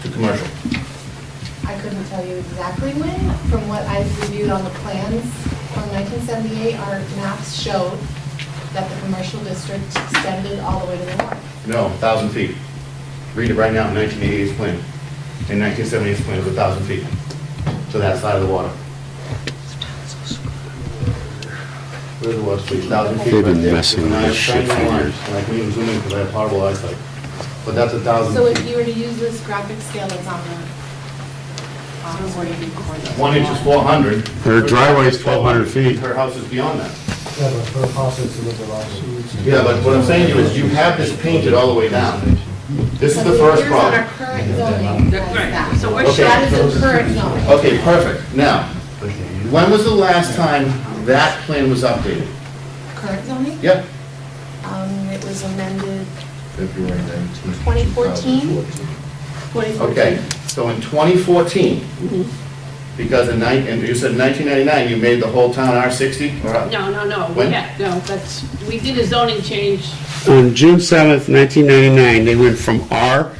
commercial? I couldn't tell you exactly when. From what I've reviewed on the plans from 1978, our maps showed that the commercial district extended all the way to the north. No, 1,000 feet. Read it right now, 1988's plan. In 1978's plan, it was 1,000 feet to that side of the water. Where's the water, please? 1,000 feet They've right been there. messing with And I this shit tried for my lines, years. And I couldn't even zoom in because I have horrible eyesight. But that's So 1,000 if you feet. were to use this graphic scale that's on the, on the board, One inch is 400. Her driveway's 1,200 feet. Her house is beyond that. Yeah, but her house is a little larger. Yeah, but what I'm saying to you is you have this painted all the way down. This is the first Here's problem. our current zoning that's that. So we're Okay. That is the current zoning. Okay, perfect. Now, when was the last time that plan was updated? Current zoning? Yep. Um, it was amended February 19th. 2014? 2014. Okay, so in 2014, because in nine, and you said 1999, you made the whole town R60? or- No, no, no, When? yeah, no, that's, we did a zoning change, On June 7th, 1999, they went from R,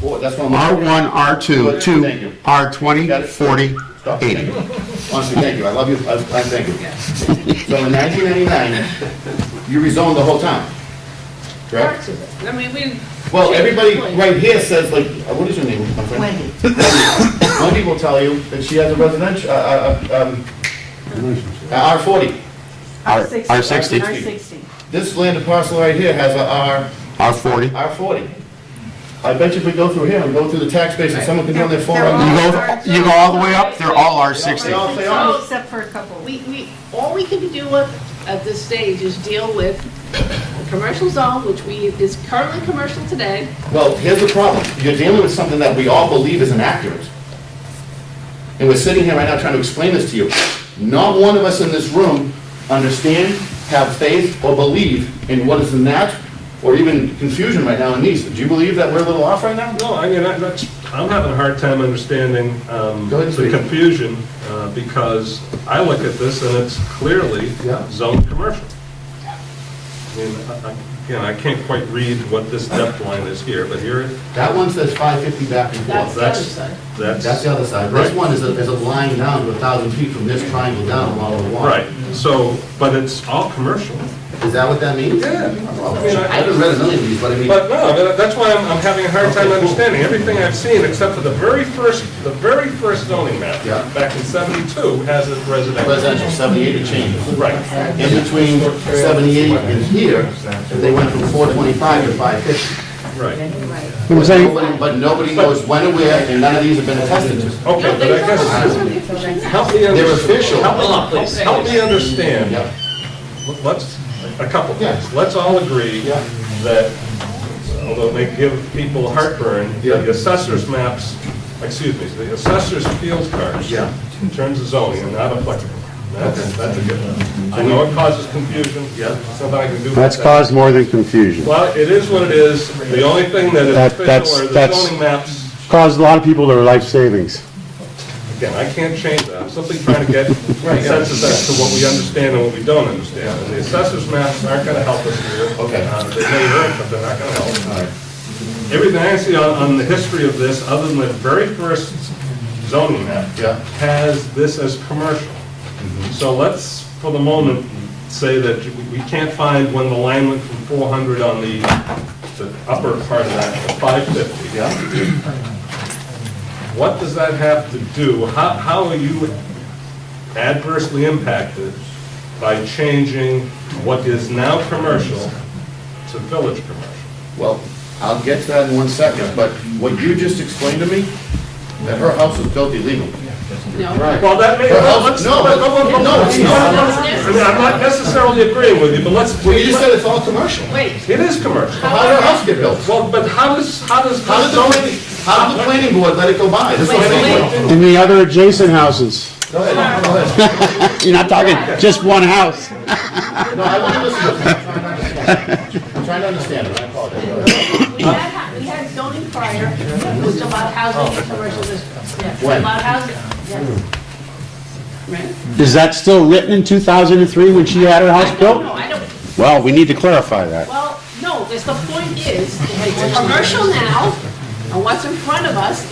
Well, that's what I'm. R1, R2 Thank you. to Got it. R20, 40, Stop. Thank 80. you. Honestly, thank you. I love you. I I thank you. So in 1999, you rezoned the whole town, correct? parts of it. I mean, we. Well, everybody right here says like, uh, what is your name? my friend? Wendy. Wendy will tell you that she has a residential, uh, uh, um, uh, R forty. R- R60, This land and parcel right here has a R40. R, R forty. I bet you if we go through here and go through the tax base and someone can turn their phone You on. go, you go all the way up, they're all R60. They are. Except for a couple. We, we, all we can do with, at this stage is deal with the commercial zone, which we, is currently commercial today. Well, here's the problem. You're dealing with something that we all believe is inaccurate. And we're sitting here right now trying to explain this to you. Not one of us in this room understand, have faith, or believe in what is in that, or even confusion right now in these. Do you believe that we're a little off right now? No, I mean, I- that's, I'm having a hard time understanding um, Go ahead, the please. confusion, uh, because I look at this and it's clearly Yeah. zoned commercial. I mean, I- I- again, I can't quite read what this depth line is here, but here, That one says 550 back and That's forth. the other that's, side. That's that's, the other side. This Right. one is a, is a line down to 1,000 feet from this triangle down along the wall. right, so, but it's all commercial. Is that what that means? Yeah. Oh, I haven't read a million of these, but I mean, But no, that- that's why I'm, I'm having a hard time understanding everything I've seen, except for the very first, the very first zoning map, Yeah. back in 72, has it residential. residential, 78 to change. Right. in between 78 and here, they went from 425 to 550. Right. But nobody- But nobody knows when or where, and none of these have been attested to. Okay, but I guess, help me understand. They're official. Help me- help me understand. Yep. Let's, a couple things. Yeah. Let's all agree Yeah. that, although it may give people heartburn, Yeah. the assessor's maps, excuse me, the assessor's field cards Yeah. in terms of zoning are not applicable. That's, that's a good one. I know it causes confusion. Yeah. Something I can do. about That's that. caused more than confusion. Well, it is what it is. The only thing that is That- that's- official are the that's- zoning maps. Caused a lot of people their life savings. Again, I can't change that, I'm simply trying to get consensus as to what we understand and what we don't understand. And the assessor's maps aren't gonna help us here. Okay. Uh, They may work, but they're not gonna help. All right. Everything I see on, on the history of this, other than the very first zoning map, Yeah. Mm-hmm. has this as commercial. So let's, for the moment, say that we- we can't find when the line went from 400 on the, the upper part of that to 550. Yeah. What does that have to do? How, how are you adversely impacted by changing what is now commercial to village commercial? Well, I'll get to that in one second, but what you just explained to me, that her house was built illegally. No. Well, that may, Her well, house, let's, no, no, but- no, no, no, no, it's not. I mean, I'm not necessarily agreeing with you, but let's, Well, you just said it's all commercial. Wait, it is commercial. How did her house get built? Well, but how does, how does How did the, planning- how did the planning board let it go by? This is what I'm saying. And the other adjacent houses, Go ahead, go ahead. you're not talking just one house. No, I want to listen to you. I'm trying to understand. I'm trying to understand, it. I apologize. Go ahead. we had, we had zoning prior, it was about housing and commercial districts. Yeah, When? About housing, yes. Right? Is that still written in 2003 when she had her house I don't know, built? I don't, Well, we need to clarify that. Well, no, because the point is, it's commercial now, and what's in front of us